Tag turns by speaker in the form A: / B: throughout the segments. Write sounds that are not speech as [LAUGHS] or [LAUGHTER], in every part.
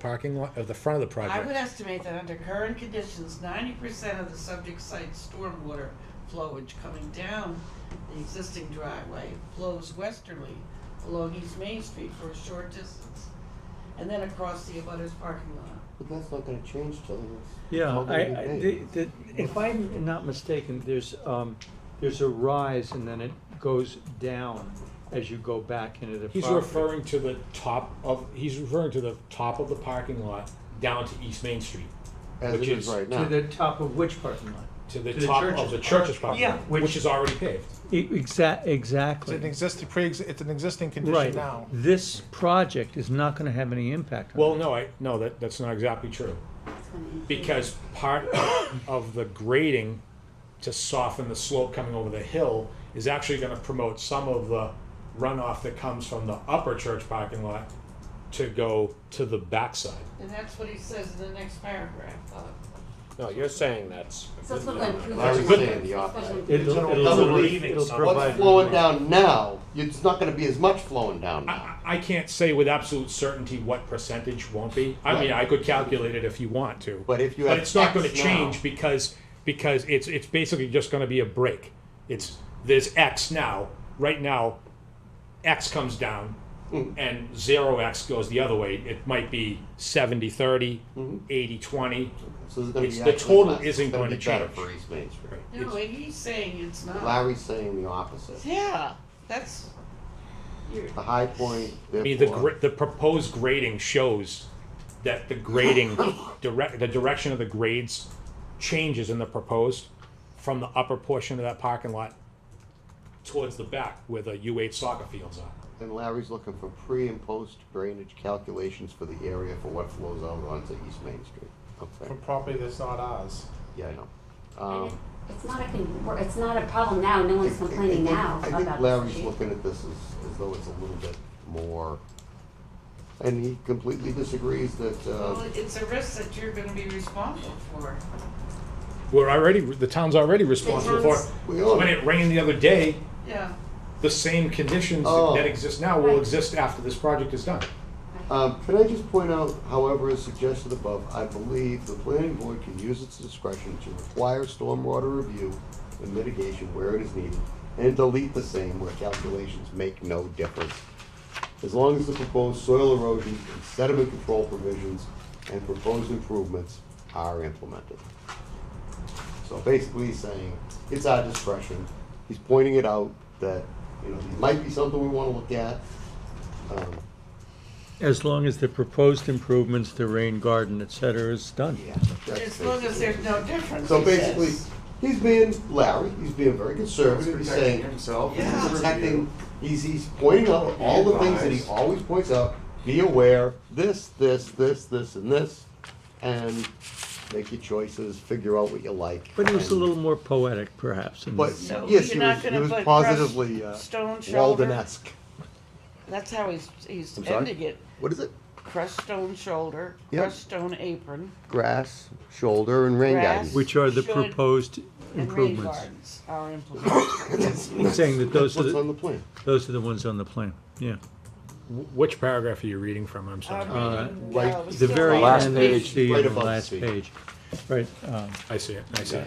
A: parking lot, or the front of the
B: I would
A: project?
B: estimate that under current conditions, ninety percent of the subject site's stormwater flowage coming down the existing driveway flows westerly along East Main Street for a short distance, and then across the abutters parking lot.
C: But that's not gonna change till it's.
D: Yeah,
C: all gonna
D: I,
C: be
D: I, the,
C: paved.
D: the, if I'm not mistaken, there's, um, there's a rise and then it goes down as you go back into the
A: He's
D: property.
A: referring to the top of, he's referring to the top of the parking lot down to East Main Street,
C: As it
A: which
C: is
A: is
C: right
D: To
C: now.
D: the top of which parking lot?
A: to the
D: To the
A: top of
D: church's
A: the
D: parking
A: church's
D: lot.
A: parking
D: Yeah,
A: lot,
D: which-
A: which is already paved.
D: Exact,
E: It's an
D: E, exactly,
E: existing, pre, it's an existing condition
D: right.
E: now.
D: This project is not gonna have any impact on
A: Well, no, I, no, that, that's not exactly true. Because part of the grading to soften the slope coming over the hill is actually gonna promote some of the runoff that comes from the upper church parking lot to go to the backside.
B: And that's what he says in the next paragraph, uh, Bob.
F: No, you're saying that's.
G: So it's like improving.
C: Larry's saying the opposite.
D: it. It'll,
E: It'll-
D: it'll,
C: it'll
D: relieve-
F: relieving
D: it'll
F: some-
D: provide.
C: What's flowing down now, it's not gonna be as much flowing down
A: I,
C: now.
A: I- I can't say with absolute certainty what percentage won't be. I mean, I could calculate it if you want to.
C: But if you
A: But
C: have
A: it's not
C: X
A: gonna
C: now-
A: change because, because it's, it's basically just gonna be a break. It's, there's X now, right now, X comes down
C: Mm-hmm.
A: and zero X goes the other way. It might be 70, 30,
C: Mm-hmm.
A: 80, 20.
C: So there's gonna
A: Uh-uh.
C: be
A: It's-
C: actually
A: the total
C: less. It's
A: isn't
C: gonna
A: going
C: be
A: to
C: better
A: change.
C: For East Main Street.
B: No, and he's saying it's not.
C: Larry's saying the opposite.
B: Yeah, that's, you're,
C: The high point,
A: I mean, the,
C: therefore,
A: gr- the proposed grading shows that the [LAUGHS] grading, direct, the direction of the grades changes in the proposed from the upper portion of that parking lot towards the back where the U eight soccer fields are.
C: and Larry's looking for pre and post drainage calculations for the area for what flows out onto East Main Street.
E: For
C: Okay,
E: property that's not ours.
C: yeah, I know. Um,
G: It's not a, con- it's not a problem now, no one's complaining now
C: I
G: about
C: think
G: this
C: Larry's
G: issue.
C: looking at this as, as though it's a little bit more, and he completely disagrees that,
B: well,
C: uh,
B: it's a risk that you're gonna be responsible for.
A: We're already, the town's already responsible for
G: town's-
A: it.
C: we
A: When
C: own it.
A: it rained the other day,
B: Yeah,
A: the same conditions
C: Oh.
A: that exist now will
G: Right.
A: exist after this project is done.
C: Um, can I just point out, however, as suggested above, I believe the planning board can use its discretion to require stormwater review and mitigation where it is needed, and delete the same where calculations make no difference. As long as the proposed soil erosion and sediment control provisions and proposed improvements are implemented. So basically he's saying, it's our discretion, he's pointing it out that, you know, it might be something we wanna look at. Um,
D: As long as the proposed improvements, the rain garden, et cetera, is done.
C: Yeah.
B: as long as there's no difference,
C: So
B: he
C: basically,
B: says.
C: he's being Larry, he's being very conservative, he's saying,
H: himself.
B: Yeah.
C: he's protecting, he's, he's pointing out all the things that he always points out, be aware, this, this, this, this, and this, and make your choices, figure out what you like.
D: But it was a
C: and-
D: little more poetic perhaps. in
C: But,
D: this.
B: So
C: yes,
B: you're
C: he
B: not
C: was, he
B: gonna
C: was
B: put
C: positively, uh,
B: crushed stone shoulder?
C: Walden-esque.
B: That's how he's, he's
C: I'm sorry?
B: ending it.
C: What is it?
B: Crushed stone shoulder,
C: Yep.
B: crushed stone apron,
C: Grass, shoulder, and rain
B: Grass.
C: garden. [LAUGHS]
D: Which are the
B: Should-
D: proposed
B: and rain gardens
D: improvements,
B: are implemented.
D: saying that
C: That's
D: those are,
C: what's on
D: the-
C: the plan.
D: those are the ones on the plan, yeah.
A: Wh- Which paragraph are you reading from? I'm sorry.
B: Um, I'm reading,
C: right,
B: uh,
D: Uh, The very
H: Last
D: end,
H: page.
D: the uh,
C: Right above
D: last
C: the
D: page.
C: page.
D: Right, um,
A: I see it, I see it.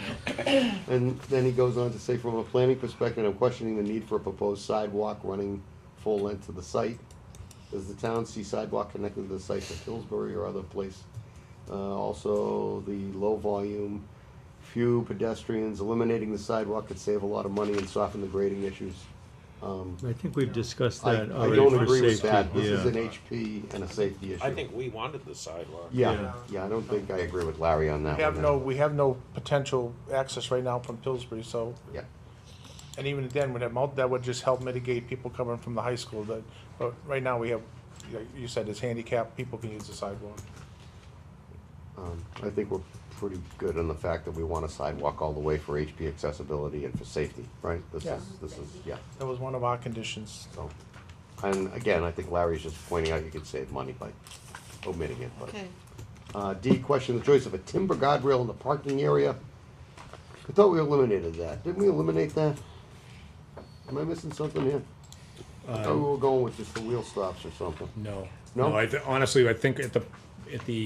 C: And then he goes on to say, from a planning perspective, I'm questioning the need for a proposed sidewalk running full length to the site. Does the town see sidewalk connected to the site of Hillsbury or other place? Uh, also, the low volume, few pedestrians, eliminating the sidewalk could save a lot of money and soften the grading issues. Um,
D: I think we've discussed
C: I,
D: that
C: I
D: already
C: don't
D: for
C: agree with
D: safety,
C: that. This is an
D: yeah.
C: HP and a safety issue.
F: I think we wanted the sidewalk.
C: Yeah, yeah, I don't think I agree with Larry on that
E: We have
C: one.
E: no, we have no potential access right now from Pillsbury, so,
C: Yeah.
E: and even then, would have, mul- that would just help mitigate people coming from the high school that, but right now we have, like you said, it's handicapped, people can use the sidewalk.
C: Um, I think we're pretty good on the fact that we want a sidewalk all the way for HP accessibility and for safety, right? This
E: Yeah.
C: is, this is, yeah,
E: That was one of our conditions.
C: so. And again, I think Larry's just pointing out you could save money by omitting it, but.
B: Okay.
C: Uh, D, question the choice of a timber guardrail in the parking area. I thought we eliminated that. Didn't we eliminate that? Am I missing something here? I thought we were going with just the wheel stops or something.
A: No.
C: No?
A: I th- honestly, I think at the at the